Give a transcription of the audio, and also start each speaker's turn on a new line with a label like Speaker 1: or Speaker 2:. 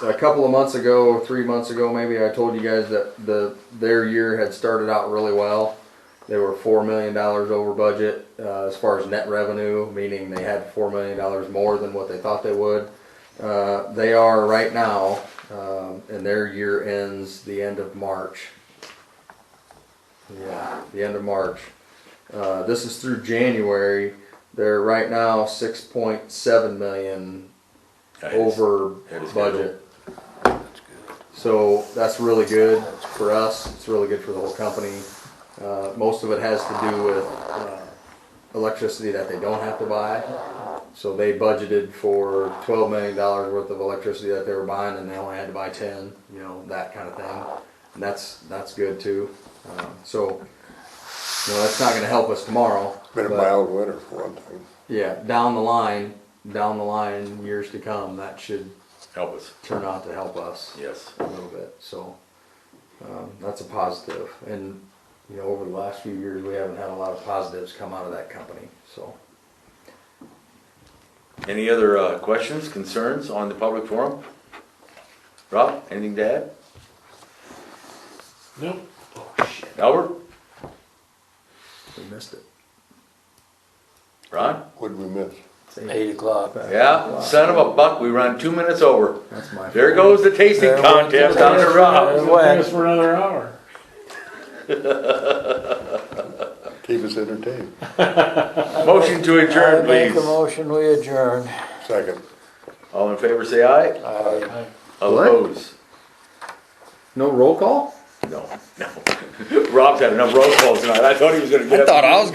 Speaker 1: a couple of months ago, three months ago, maybe I told you guys that the their year had started out really well. They were four million dollars over budget uh, as far as net revenue, meaning they had four million dollars more than what they thought they would. Uh, they are right now, um, and their year ends the end of March. Yeah, the end of March. Uh, this is through January. They're right now six point seven million over
Speaker 2: ahead of
Speaker 1: budget. So that's really good for us, it's really good for the whole company. Uh, most of it has to do with uh, electricity that they don't have to buy. So they budgeted for twelve million dollars worth of electricity that they were buying and they only had to buy ten, you know, that kind of thing. And that's, that's good too. Uh, So, you know, that's not gonna help us tomorrow.
Speaker 3: Been a
Speaker 1: but-
Speaker 3: mild winter for one thing.
Speaker 1: yeah, down the line, down the line, years to come, that should
Speaker 2: Help us,
Speaker 1: turn out to help us
Speaker 2: yes.
Speaker 1: a little bit. So um, that's a positive. And you know, over the last few years, we haven't had a lot of positives come out of that company. So
Speaker 2: Any other uh, questions, concerns on the public forum? Rob, anything to add? Oh,
Speaker 4: Nope.
Speaker 2: Albert?
Speaker 1: we missed it.
Speaker 2: Ron?
Speaker 3: What'd we miss?
Speaker 4: Eight o'clock.
Speaker 2: Yeah, son of a buck, we run two minutes over.
Speaker 1: That's my.
Speaker 2: There
Speaker 1: fault.
Speaker 2: goes the tasting contest down to Rob.
Speaker 4: Went for another hour.
Speaker 3: Keep us entertained.
Speaker 2: Motion to adjourn,
Speaker 5: Make a
Speaker 2: please.
Speaker 5: motion, we adjourn.
Speaker 3: Second.
Speaker 2: All in favor, say aye.
Speaker 4: Aye.
Speaker 2: Oppose?
Speaker 1: No roll call.
Speaker 2: No, no. Rob's had enough roll calls tonight. I thought he was gonna get up.
Speaker 5: I was